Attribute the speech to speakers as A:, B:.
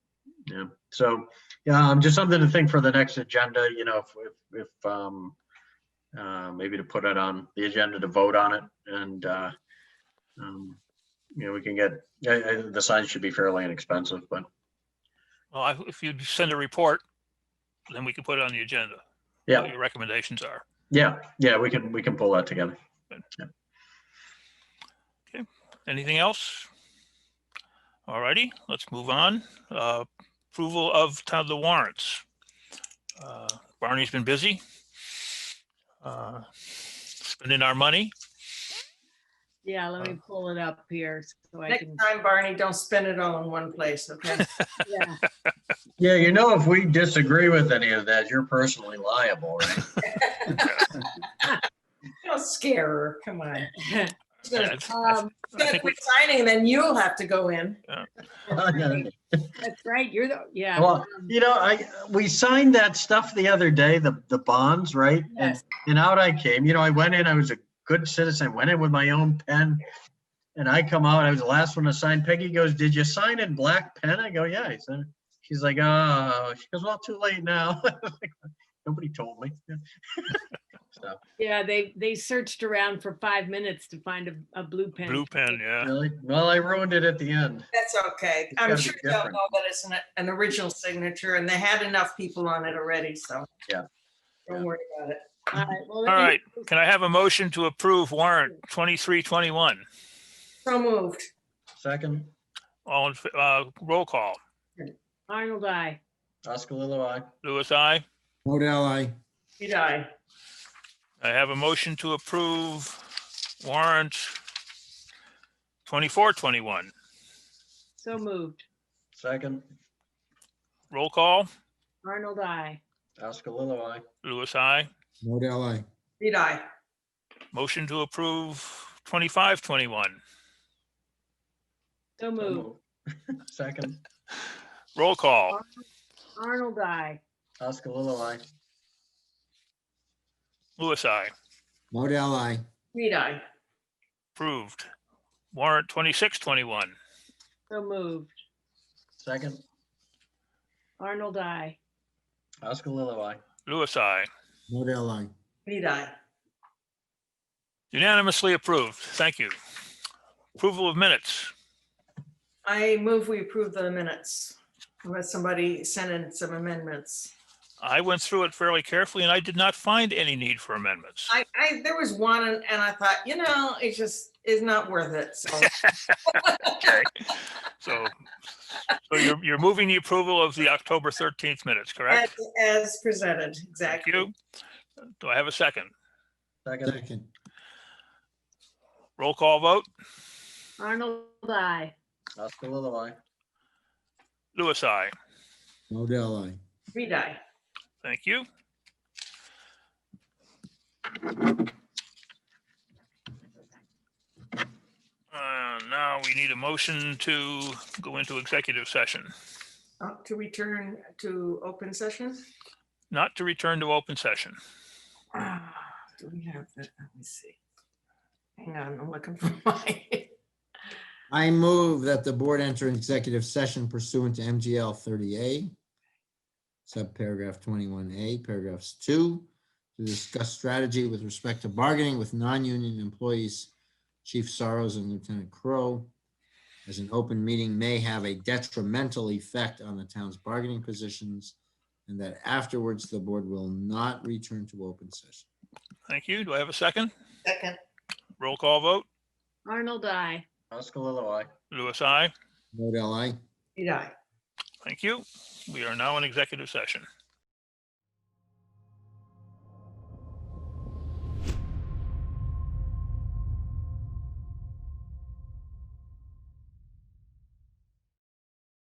A: Yeah, so, yeah, um, just something to think for the next agenda, you know, if, if, if, um, uh, maybe to put it on the agenda to vote on it and, uh, um, you know, we can get, yeah, yeah, the signs should be fairly inexpensive, but,
B: Well, I- if you send a report, then we can put it on the agenda. What
A: yeah,
B: your recommendations are.
A: yeah, yeah, we can, we can pull that together.
B: Anything else? Alrighty, let's move on. Uh, Approval of town the warrants. Uh, Barney's been busy. uh, Spending our money.
C: Yeah, let me pull it up here so I
D: Next
C: can.
D: time, Barney, don't spend it all in one place, okay?
C: Yeah,
A: Yeah, you know, if we disagree with any of that, you're personally liable, right?
D: Don't scare her, come on. She's
B: Yeah,
D: gonna
B: it's- I
C: Um,
D: she's
B: I
D: gonna
B: think we-
D: quit signing, and then you'll have to go in.
C: That's right, you're the, yeah.
A: Well,
C: um,
A: you know, I, we signed that stuff the other day, the, the bonds, right? And
C: Yes,
A: And out I came, you know, I went in, I was a good citizen, went in with my own pen. And I come out, I was the last one to sign. Peggy goes, did you sign in black pen? I go, yeah. I said, she's like, oh, she goes, well, too late now. Nobody told me. So,
C: yeah, they, they searched around for five minutes to find a, a blue pen.
B: Blue pen, yeah.
A: really? Well, I ruined it at the end.
D: That's okay.
A: It's
D: I'm
A: gotta be
D: sure they'll
A: different.
D: know that it's an, an original signature, and they had enough people on it already, so.
A: Yeah.
D: Don't
A: Yeah.
D: worry about it.
C: All right, well,
B: All
C: you-
B: right, can I have a motion to approve warrant 2321?
D: So moved.
A: Second,
B: All, in fa- uh, roll call.
C: Arnold, I,
A: Oscar Lilo, aye.
B: Louis, I.
E: Modell, I.
D: You die.
B: I have a motion to approve warrant 2421.
C: so moved.
A: Second,
B: Roll call,
C: Arnold, I,
A: Oscar Lilo, aye.
B: Louis, I.
E: Modell, I.
D: You die.
B: Motion to approve 2521.
C: so
A: So
C: moved.
A: moved. Second,
B: Roll call,
C: Arnold, I,
A: Oscar Lilo, aye.
B: Louis, I.
E: Modell, I.
D: You die.
B: Approved. Warrant 2621.
C: so moved.
A: Second,
C: Arnold, I,
A: Oscar Lilo, aye.
B: Louis, I.
E: Modell, I.
D: You die.
B: Unanimously approved. Thank you. Approval of minutes.
D: I move we approve the minutes. Unless somebody sent in some amendments.
B: I went through it fairly carefully and I did not find any need for amendments.
D: I, I, there was one and and I thought, you know, it just is not worth it, so.
B: Okay. So, so you're, you're moving the approval of the October 13th minutes,
D: As
B: correct?
D: as presented,
B: Thank
D: exactly.
B: you. Do I have a second?
A: Second,
E: Second.
B: Roll call vote,
C: Arnold, I,
A: Oscar Lilo, aye.
B: Louis, I.
E: Modell, I.
D: Reed, aye.
B: Thank you. Uh, Now we need a motion to go into executive session,
D: Uh, To return to open session.
B: not to return to open session.
D: Ah, Do we have that? Let me see. Hang on, I'm looking for my,
E: I move that the board enter an executive session pursuant to MGL 30A, subparagraph 21A, paragraphs 2, to discuss strategy with respect to bargaining with non-union employees, Chief Sorrows and Lieutenant Crow, as an open meeting may have a detrimental effect on the town's bargaining positions, and that afterwards the board will not return to open session.
B: Thank you. Do I have a second?
D: second,
B: Roll call vote,
C: Arnold, I,
A: Oscar Lilo, aye.
B: Louis, I.
E: Vote aye.
D: Reed, aye.
B: Thank you. We are now in executive session.